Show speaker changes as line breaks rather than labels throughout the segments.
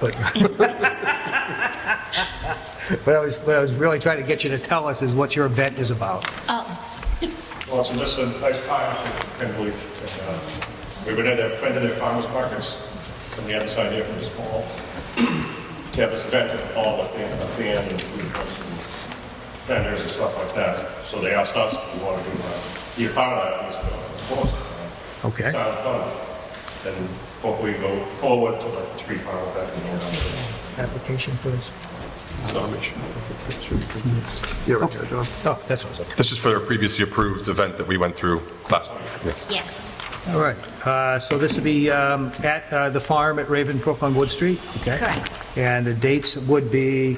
But what I was, what I was really trying to get you to tell us is what your event is about.
Well, it's a list of nice farms in Penleaf. and, uh, We went in there, went to their farmers markets from the other side here from this fall. To have this event in the fall with the, a band and food trucks and vendors and stuff like that. So they asked us if we wanted to uh, be a part of that. And we said, "Well, of course.
Okay.
Sounds fun. And hopefully go forward to like three farm event and all that.
Application first.
Yeah, right there, John.
Oh, that's what I was looking
This is for a previously approved event that we went through last week.
Yes.
for. All right. Uh, So this will be um, at uh, the farm at Ravenbrook on Wood Street? okay?
Correct.
And the dates would be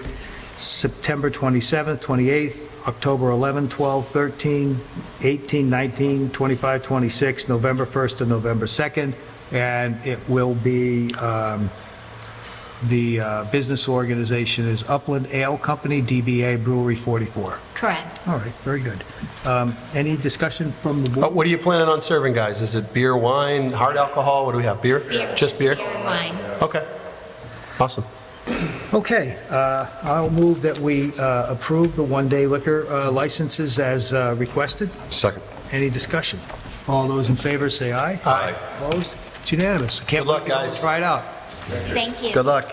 September 27th, 28th, October 11th, 12th, 13th, 18th, 19th, 25th, 26th, November 1st to November 2nd. And it will be um, The uh, business organization is Upland Ale Company, DBA Brewery 44.
Correct.
All right, very good. Um, Any discussion from the
Uh,
board?
What are you planning on serving, guys? Is it beer, wine, hard alcohol? What do we have? Beer?
Beer.
Just beer?
and wine.
Okay. Awesome.
Okay, uh, I'll move that we uh, approve the one-day liquor uh, licenses as uh, requested.
Second.
Any discussion? All those in favor say aye.
Aye.
Opposed? It's unanimous. Good
luck, guys.
Try it out.
Thank you.
Good luck.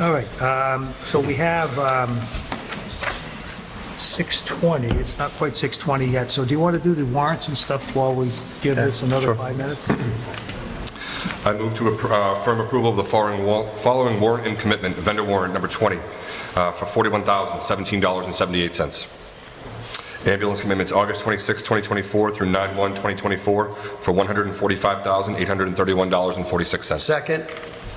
All right, um, so we have um, 6:20, it's not quite 6:20 yet, so do you want to do the warrants and stuff while we give this another five minutes?
I move to appro- uh, firm approval of the following wa- following warrant and commitment, vendor warrant number 20, uh, for $41,017.78. Ambulance commitments August 26, 2024 through 9/1/2024 for $145,831.46.
Second.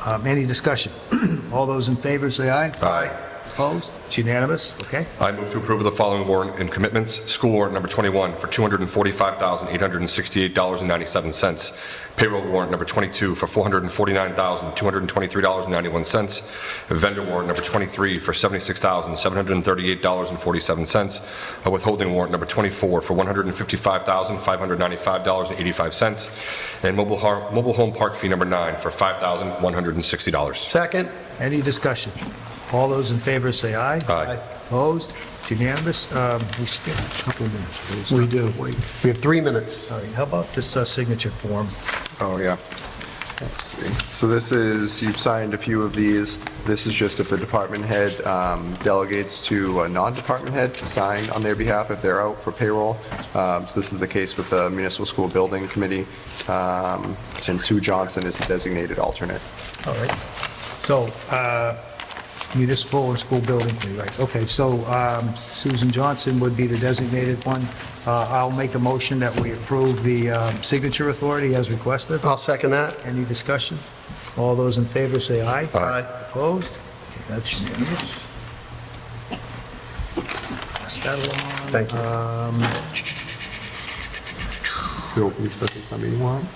Um, Any discussion? All those in favor, say aye.
Aye.
Opposed? It's unanimous, okay?
I move to approve the following warrant and commitments. School warrant number 21 for $245,868.97. Payroll warrant number 22 for $449,223.91. Vendor warrant number 23 for $76,738.47. A withholding warrant number 24 for $155,595.85. And mobile har- mobile home park fee number 9 for $5,160.
Second.
Any discussion? All those in favor, say aye.
Aye.
Opposed? It's unanimous. Um, We skip a couple of minutes, please.
We do. We have three minutes.
All right, how about this uh, signature form?
Oh, yeah. Let's see. So this is, you've signed a few of these. This is just if the department head um, delegates to a non-department head to sign on their behalf if they're out for payroll. Um, So this is the case with the Municipal School Building Committee, um, and Sue Johnson is the designated alternate.
All right. So uh, municipal and school building, committee, right, okay, so um, Susan Johnson would be the designated one. Uh, I'll make a motion that we approve the um, signature authority as requested.
I'll second that.
Any discussion? All those in favor say aye.
Aye.
Opposed? Okay, That's unanimous. Pass that along. Uh,
Thank you.
Who will be special town meeting warrant?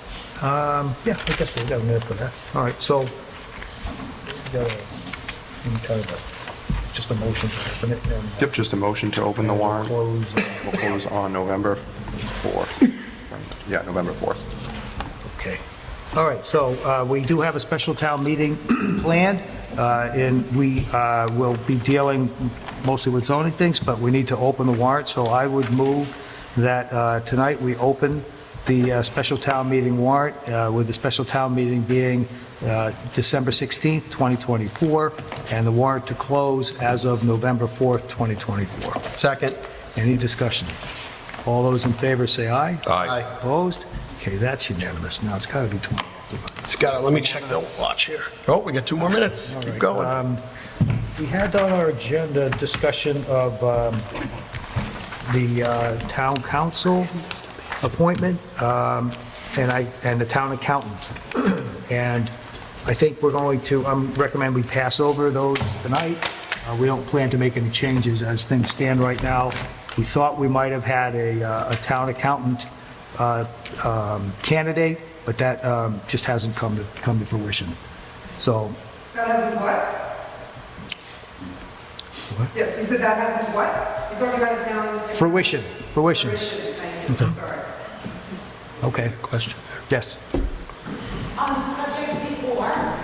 Yeah, I guess we got a minute for that. All right, so, we got a- any kind of a- just a motion to open it and
Yep, just a motion to open the warrant.
close.
We'll close on November 4th. Yeah, November 4th.
Okay. All right, so uh, we do have a special town meeting planned, uh, and we uh, will be dealing mostly with zoning things, but we need to open the warrant, so I would move that uh, tonight we open the uh, special town meeting warrant, uh, with the special town meeting being uh, December 16th, 2024, and the warrant to close as of November 4th, 2024.
Second.
Any discussion? All those in favor say aye.
Aye.
Opposed? Okay, that's unanimous. Now, it's got to be 20.
It's got to, let me check the watch here. Oh, we got two more minutes. Keep going.
We had on our agenda discussion of um, the uh, town council appointment um, and I, and the town accountant. And I think we're going to, I recommend we pass over those tonight. Uh, We don't plan to make any changes as things stand right now. We thought we might have had a, uh, a town accountant uh, um, candidate, but that um, just hasn't come to, come to fruition. So
That hasn't what? Yes, you said that hasn't what? You thought you had a town.
fruition, fruition.
Fruition, thank you, sorry.
Okay. Question. Yes.
On the subject before,
why?